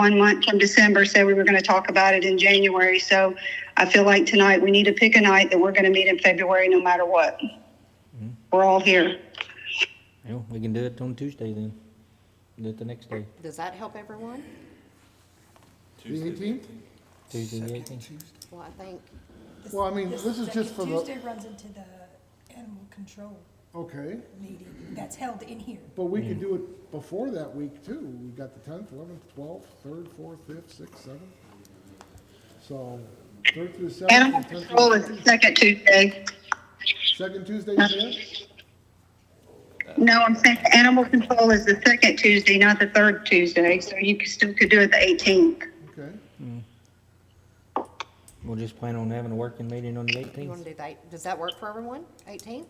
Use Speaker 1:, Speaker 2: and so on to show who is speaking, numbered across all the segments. Speaker 1: one month from December said we were going to talk about it in January. So I feel like tonight we need to pick a night that we're going to meet in February no matter what. We're all here.
Speaker 2: Yeah, we can do it on Tuesday then. Do it the next day,
Speaker 3: Does that help everyone?
Speaker 4: The eighteenth?
Speaker 2: Tuesday the eighteenth.
Speaker 3: Well, I think,
Speaker 4: Well, I mean, this is just for the,
Speaker 5: Tuesday runs into the animal control
Speaker 4: okay,
Speaker 5: meeting that's held in here.
Speaker 4: but we could do it before that week too. We got the tenth, eleventh, twelfth, third, fourth, fifth, sixth, seventh. So, third through
Speaker 1: Animal
Speaker 4: seventh, and
Speaker 1: control
Speaker 4: tenth,
Speaker 1: is the second Tuesday.
Speaker 4: second Tuesday, you said?
Speaker 1: No, I'm saying animal control is the second Tuesday, not the third Tuesday. So you could- still could do it the 18th.
Speaker 4: Okay,
Speaker 2: We'll just plan on having a working meeting on the
Speaker 3: you want
Speaker 2: eighteenth.
Speaker 3: to do that, does that work for everyone, 18th?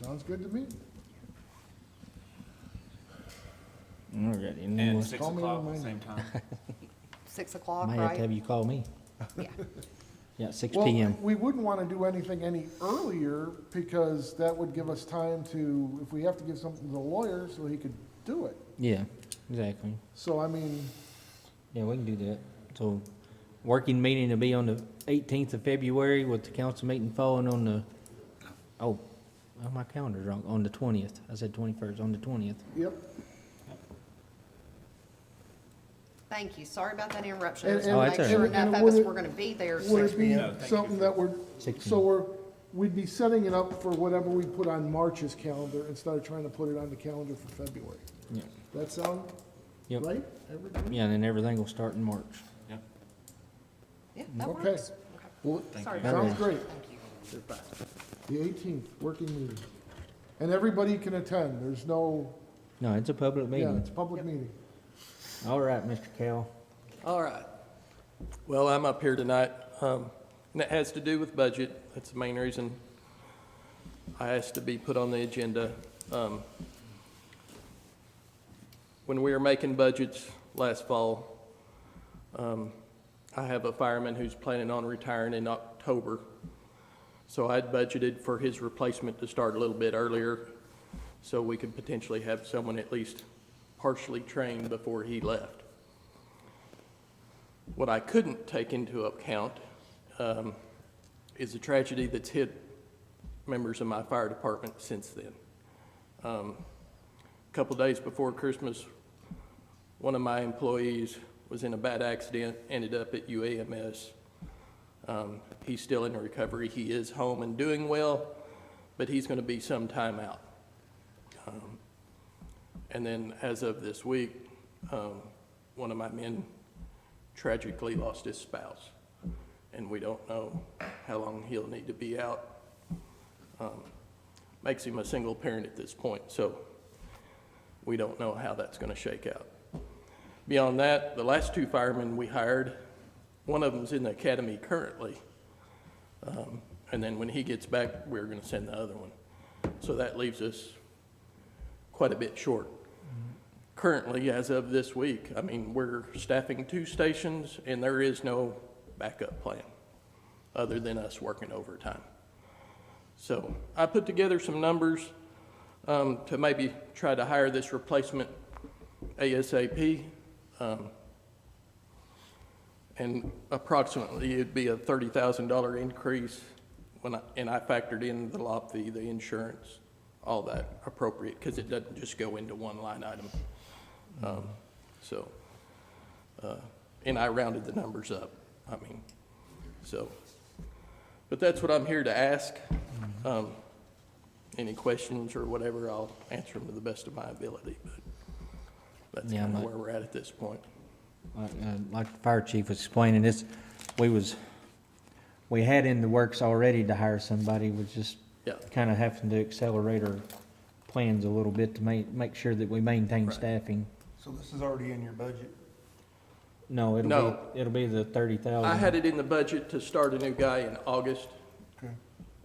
Speaker 4: sounds good to me.
Speaker 2: Alrighty, and
Speaker 6: And
Speaker 2: we'll-
Speaker 6: six
Speaker 4: Call me on
Speaker 6: o'clock at
Speaker 4: my
Speaker 6: the same time.
Speaker 3: 6 o'clock,
Speaker 2: might have to have
Speaker 3: right?
Speaker 2: you call me.
Speaker 3: Yeah.
Speaker 2: Yeah, six
Speaker 4: Well,
Speaker 2: PM.
Speaker 4: We wouldn't want to do anything any earlier because that would give us time to, if we have to give something to the lawyer so he could do it.
Speaker 2: Yeah, exactly.
Speaker 4: So I mean,
Speaker 2: Yeah, we can do that. So, working meeting will be on the eighteenth of February with the council meeting following on the, oh, oh, my calendar's wrong, on the twentieth. I said twenty-first, on the twentieth.
Speaker 4: yep.
Speaker 3: Thank you, sorry about that interruption. I
Speaker 4: And-
Speaker 3: just want
Speaker 2: and-
Speaker 3: to make sure
Speaker 4: and-
Speaker 3: enough
Speaker 4: and
Speaker 3: of us
Speaker 4: would it-
Speaker 3: were going to be there. so-
Speaker 4: Would it be
Speaker 6: thank you
Speaker 4: something that we're,
Speaker 2: Six
Speaker 4: so
Speaker 2: p.m.
Speaker 4: we're, we'd be setting it up for whatever we put on March's calendar instead of trying to put it on the calendar for February?
Speaker 2: Yeah.
Speaker 4: That sound
Speaker 2: Yep.
Speaker 4: right? everybody?
Speaker 2: Yeah, and then everything will start in March.
Speaker 6: Yep.
Speaker 3: Yeah, that
Speaker 4: Okay.
Speaker 3: works.
Speaker 4: Well,
Speaker 3: Sorry.
Speaker 4: sounds great.
Speaker 3: Thank you.
Speaker 4: The eighteenth, working meeting. And everybody can attend. There's no,
Speaker 2: No, it's a public
Speaker 4: yeah,
Speaker 2: meeting.
Speaker 4: it's a public meeting.
Speaker 2: All right, Mr. Cal.
Speaker 7: All right. Well, I'm up here tonight, um, and it has to do with budget. That's the main reason I asked to be put on the agenda. Um, When we were making budgets last fall, um, I have a fireman who's planning on retiring in October. So I'd budgeted for his replacement to start a little bit earlier, so we could potentially have someone at least partially trained before he left. What I couldn't take into account um, is the tragedy that's hit members of my fire department since then. Um, A Couple days before Christmas, one of my employees was in a bad accident, ended up at UAMS. Um, He's still in recovery. He is home and doing well, but he's going to be some time out. Um, And then as of this week, um, one of my men tragically lost his spouse, and we don't know how long he'll need to be out. Um, Makes him a single parent at this point, so we don't know how that's going to shake out. Beyond that, the last two firemen we hired, one of them's in the academy currently, um, and then when he gets back, we're going to send the other one. So that leaves us quite a bit short currently, as of this week, I mean, we're staffing two stations, and there is no backup plan other than us working overtime. So I put together some numbers um, to maybe try to hire this replacement ASAP. um, And approximately, it'd be a $30,000 increase when I, and I factored in the lot fee, the insurance, all that appropriate, because it doesn't just go into one line item. Um, So, uh, and I rounded the numbers up, I mean, so. But that's what I'm here to ask. Um, Any questions or whatever, I'll answer them to the best of my ability, but that's
Speaker 2: Yeah, I'm
Speaker 7: kind of
Speaker 2: not-
Speaker 7: where we're at at this point.
Speaker 2: Like uh, like the fire chief was explaining, this, we was, we had in the works already to hire somebody, was just
Speaker 7: Yeah.
Speaker 2: kind of having to accelerate our plans a little bit to ma- make sure that we maintain
Speaker 7: Right.
Speaker 2: staffing.
Speaker 8: So this is already in your budget?
Speaker 2: No, it'll
Speaker 7: No.
Speaker 2: be, it'll be the thirty
Speaker 7: I
Speaker 2: thousand,
Speaker 7: had it in the budget to start a new guy in August.
Speaker 8: Okay.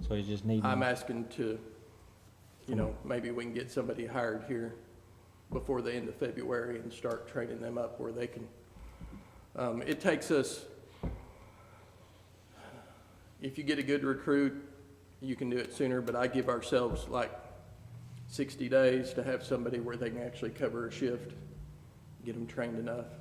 Speaker 2: so you just need,
Speaker 7: I'm asking to, you know, maybe we can get somebody hired here before the end of February and start training them up where they can. Um, it takes us, if you get a good recruit, you can do it sooner, but I give ourselves like sixty days to have somebody where they can actually cover a shift, get them trained enough.